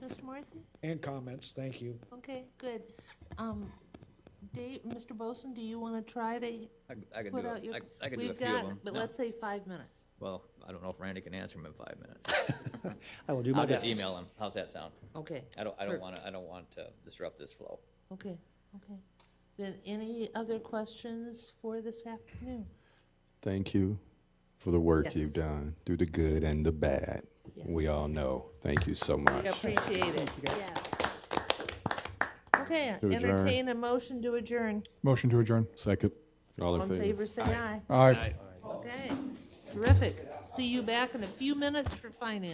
Marcy? And comments, thank you. Okay, good. Um, Dave, Mr. Boson, do you want to try to I I could do, put a- out your? I I could do a We've few of got- them. But No. let's say five minutes. Well, I don't know if Randy can answer them in five minutes. I will do my I'll best. just email him. How's that sound? Okay, I don't, I Sure. don't want to, I don't want to disrupt this flow. okay, okay. Then any other questions for this afternoon? Thank you for the work Yes. you've done through the good and the bad. We Yes. all know. Thank you so much. We appreciate it, yes. Okay, To adjourn. entertain a motion to adjourn. Motion to adjourn. Second. All All in in favor? favor, say aye. Aye. Okay, terrific. See you back in a few minutes for finance.